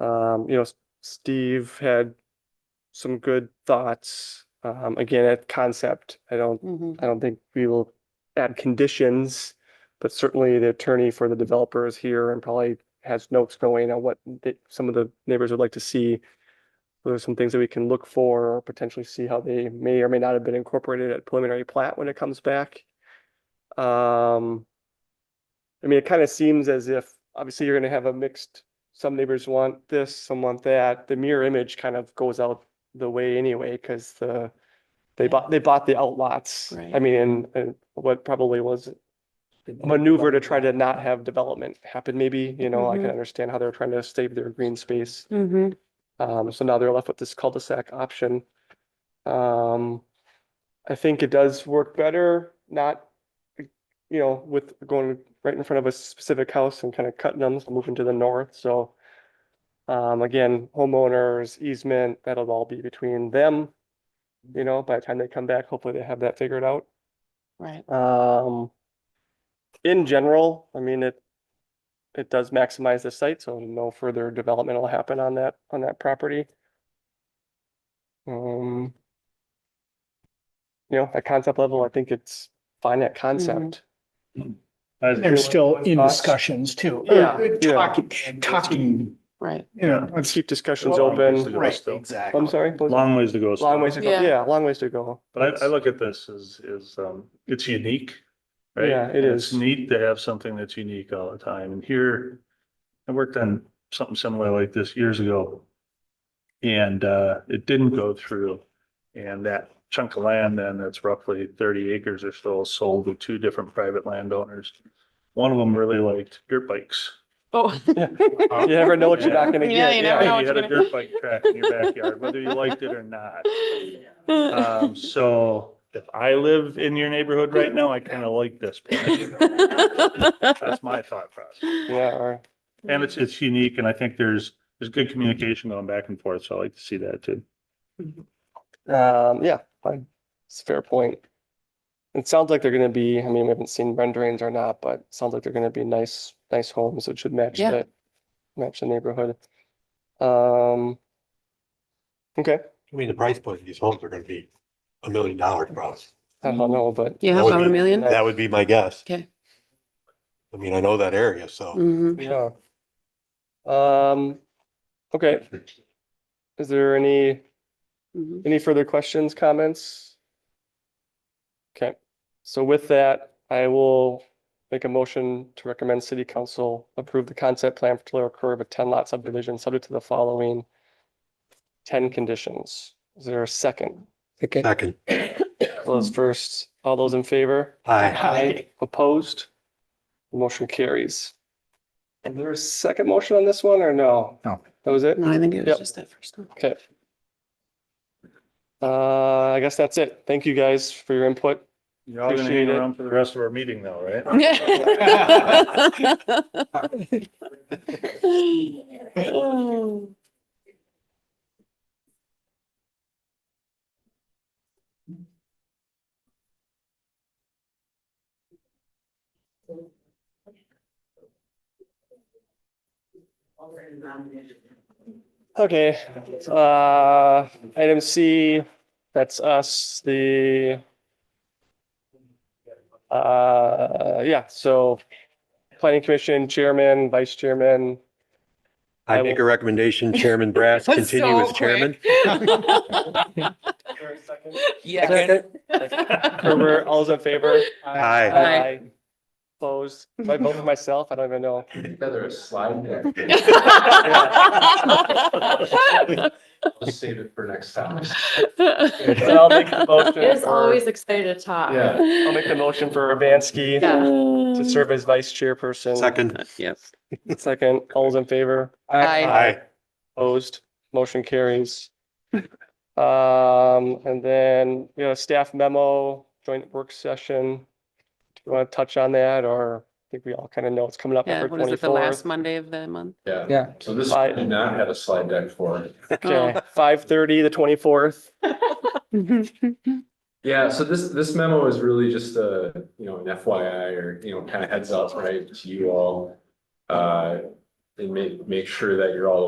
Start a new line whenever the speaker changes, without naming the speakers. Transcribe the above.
Um, you know, S- Steve had some good thoughts, um, again, at concept. I don't,
Mhm.
I don't think we will add conditions, but certainly the attorney for the developer is here and probably has notes going on what the- some of the neighbors would like to see. There's some things that we can look for or potentially see how they may or may not have been incorporated at preliminary plat when it comes back. Um, I mean, it kind of seems as if, obviously, you're gonna have a mixed, some neighbors want this, some want that. The mirror image kind of goes out the way anyway, because the, they
Yeah.
bought, they bought the outlots. I
Right.
mean, and, and what probably was a maneuver to try to not have development happen, maybe, you know, I can
Mhm.
understand how they're trying to save their green space.
Mhm.
Um, so now they're left with this cul-de-sac option. Um, I think it does work better, not, you know, with going right in front of a specific house and kind of cutting them, moving to the north, so. Um, again, homeowners, easement, that'll all be between them. You know, by the time they come back, hopefully they have that figured out.
Right.
Um, in general, I mean, it, it does maximize the site, so no further development will happen on that, on that property. Um, you know, at concept level, I think it's fine at concept.
They're still in
Thoughts?
discussions too.
Yeah,
Uh,
yeah.
Talking, talking,
Right.
you know,
Let's
let's,
keep discussions
Well,
open.
obviously-
right,
still.
exactly.
I'm sorry, was-
Long ways to go. still.
long ways to go.
Yeah.
Yeah, long ways to go.
But I, I look at this as, is, um, it's unique. right?
Yeah, it
And
is.
It's neat to have something that's unique all the time. And here, I worked on something similar like this years ago. And, uh, it didn't go through. And that chunk of land then, that's roughly thirty acres or so, sold to two different private landowners. One of them really liked dirt bikes.
Oh.
Yeah. You never know what you're not gonna
Yeah,
get.
you never
Yeah.
know.
You
what
had
you're
a
gonna-
dirt bike track in your backyard, whether you liked it or not. Um, so if I live in your neighborhood right now, I kind of like this. plan. That's my thought process.
Yeah, or-
And it's, it's unique and I think there's, there's good communication going back and forth. So I like to see that too.
Um, yeah, fine. It's a fair point. It sounds like they're gonna be, I mean, we haven't seen renderings or not, but it sounds like they're gonna be nice, nice homes, which should match
Yeah.
the, match the neighborhood. Um, okay,
I mean, the price point of these homes are gonna be a million dollars probably.
I don't know, but
Yeah,
That would
about a
be-
million.
That would be my guess.
Okay.
I mean, I know that area, so.
Mhm.
yeah. Um, okay, is there any,
Mhm.
any further questions, comments? Okay, so with that, I will make a motion to recommend city council approve the concept plan for Tulare Curve, a ten lot subdivision subject to the following ten conditions. Is there a second? Okay.
Second,
Those first, all those in favor?
hi,
Opposed? Motion carries. Is there a second motion on this one or no?
No.
That was it?
No, I think it
Yep.
was just that first one.
Okay. Uh, I guess that's it. Thank you guys for your input.
You're all gonna
Appreciate
hang
it.
around for the rest of our meeting though, right?
Okay, uh, item C, that's us, the. Uh, yeah, so planning commission chairman, vice chairman,
I make a recommendation, Chairman Brass, continue as chairman.
Yeah.
Herbert, all's in favor?
Hi.
Aye.
Opposed, my vote for myself, I don't even know.
Better slide there. I'll save it for next time.
But I'll make the motion.
It is
for-
always excited to talk.
Yeah.
I'll make the motion for Urbanski to serve as vice chairperson.
Second,
Yes.
Second, all's in favor?
Aye.
hi.
Opposed, motion carries. Um, and then, you know, staff memo, joint work session. Do you want to touch on that or I think we all kind of know it's coming up
Yeah,
for
what is it, the last
twenty-fourth?
Monday of the month?
Yeah.
Yeah.
So this,
I-
I did not have a slide deck for it.
Oh.
Okay, five thirty, the twenty-fourth.
Mm-hmm.
Yeah, so this, this memo is really just a, you know, an FYI or, you know, kind of heads up, right, to you all. Uh, and make, make sure that you're all